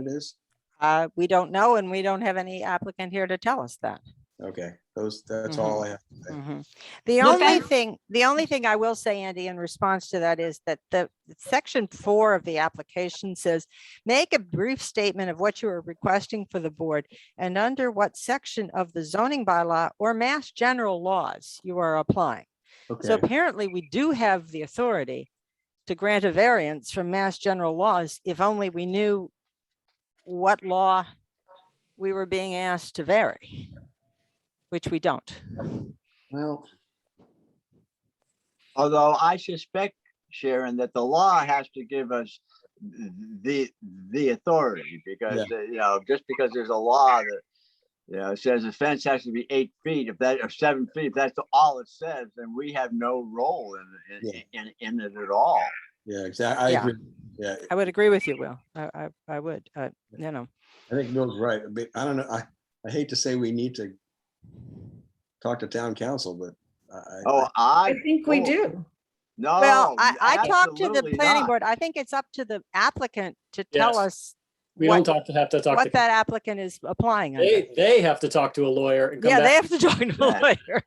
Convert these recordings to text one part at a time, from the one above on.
it is? Uh, we don't know and we don't have any applicant here to tell us that. Okay, those, that's Mm-hmm. all I have. Okay. Mhm. The Mm-hmm. Look, I- only thing, the only thing I will say, Andy, in response to that is that the section four of the application says, make a brief statement of what you are requesting for the board and under what section of the zoning bylaw or mass general laws you are applying. So Okay, apparently we do have the authority to grant a variance from mass general laws if only we knew what law we were being asked to vary, which we don't. Well. Although I suspect, Sharon, that the law has to give us th- the, the authority because, uh, you know, just because there's a law that, you know, says the fence has to be eight feet, if that, or seven feet, if that's all it says, then we have no role in, in, in, in it at all. yeah, exactly. I Yeah. agree. Yeah, I would agree with you, Will. I, I, I would, uh, you know, I think Bill's right. but I don't know, I, I hate to say we need to talk to town council, but I- I, Oh, I, I think we Oh. do. no. Oh, well, I, I talked to the absolutely planning not. board. I think it's up to the applicant to tell Yes. us We don't what, talk to have to talk what to, that applicant is applying under. they, they have to talk to a lawyer and come Yeah, they back. have to talk to a Right. lawyer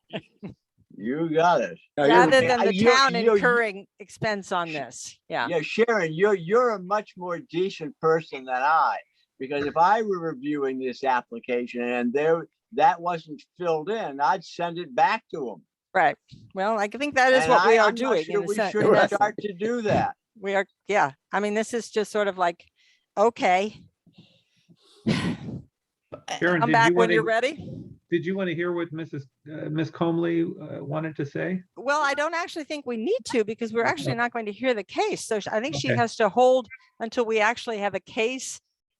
You got it. No, you're rather right. than Uh, the you're- town you're- incurring expense on this. Yeah. Yeah, Sharon, you're, you're a much more decent person than I, because if I were reviewing this application and there, that wasn't filled in, I'd send it back to them. Right. Well, I think that is what we are doing. in a We sen- in should essence. start to do that. We are, yeah. I mean, this is just sort of like, okay, Sharon, come did back you when want you're to, ready. did you want to hear what Mrs., uh, Ms. Comley uh, wanted to say? Well, I don't actually think we need to because we're actually not going to hear the case. So sh- I think she Okay. has to hold until we actually have a case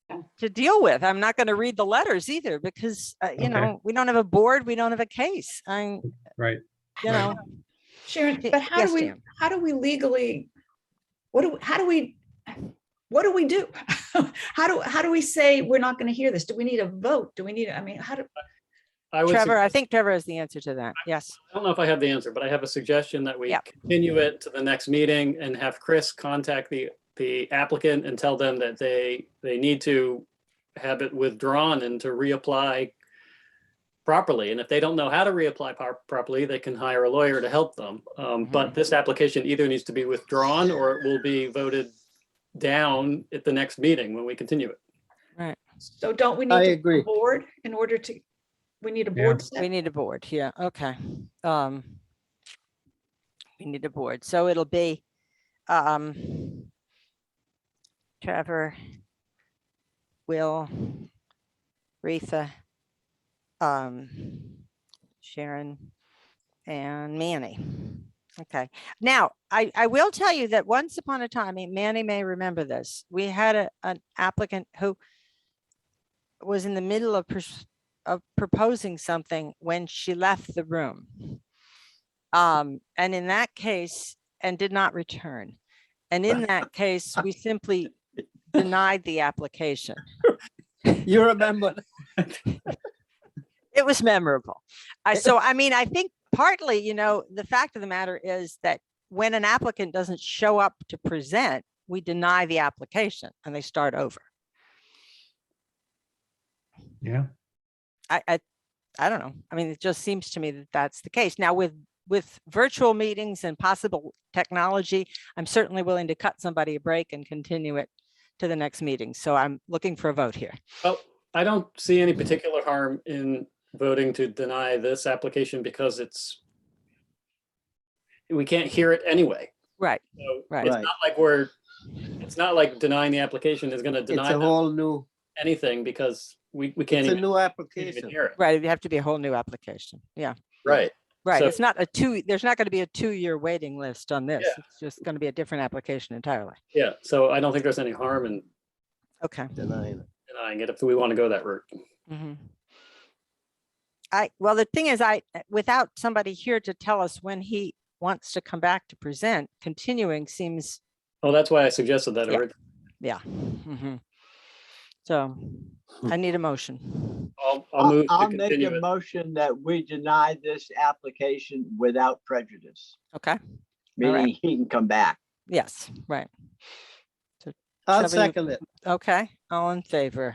Yeah. to deal with. I'm not going to read the letters either because, uh, you Okay. know, we don't have a board, we don't have a case. I'm, Right. you Right. know. Sharon, y- but how yes, do we, Dan. how do we legally, what do, how do we, what do we do? How do, how do we say we're not going to hear this? Do we need a vote? Do we need, I mean, how do, I would Trevor, I suggest- think Trevor has the answer to that. Yes. I don't know if I have the answer, but I have a suggestion that we Yep. continue it to the next meeting and have Chris contact the, the applicant and tell them that they, they need to have it withdrawn and to reapply properly. And if they don't know how to reapply par- properly, they can hire a lawyer to help them. Um, Mm-hmm. But this application either needs to be withdrawn or it will be voted down at the next meeting when we continue it. so don't we need? I to agree. Board in order to, we need a Yeah. board. We step? need a board, yeah, okay. Um, we need a board, so it'll be, um, Trevor, Will, Retha, um, Sharon, and Manny. Okay, now, I, I will tell you that once upon a time, and Manny may remember this, we had a, an applicant who was in the middle of pursuing of proposing something when she left the room. Um, and in that case, and did not return. And in that case, we simply denied the application. You remember, It was memorable. I, so, I mean, I think partly, you know, the fact of the matter is that when an applicant doesn't show up to present, we deny the application and they start over. Yeah. I, I, I don't know. I mean, it just seems to me that that's the case. Now with, with virtual meetings and possible technology, I'm certainly willing to cut somebody a break and continue it to the next meeting. So I'm looking for a vote here. Well, I don't see any particular harm in voting to deny this application because it's we can't hear it anyway. Right, So right. it's Right. not like we're, it's not like denying the application is gonna it's deny a them whole new, anything because we, we can't it's a even new can't even application. hear it. Right, it'd have to be a whole new application. Yeah, Right. right. So- It's not a two, there's not going to be a two-year waiting list on this. Yeah. It's just going to be a different application entirely. Yeah, so I don't think there's any harm in Okay. Denying it. denying it if we want to go that route. Mhm. I, well, the thing is, I, without somebody here to tell us when he wants to come back to present, continuing seems Oh, that's why I suggested that. Yeah. orig- Yeah. mhm. So Hmm. I need a motion. I'll, I'll I'll, move to I'll make continue a it. motion that we deny this application without prejudice, Okay. All right. meaning he can come back. Yes, right. So I'll Seven- second it. Okay, all in favor?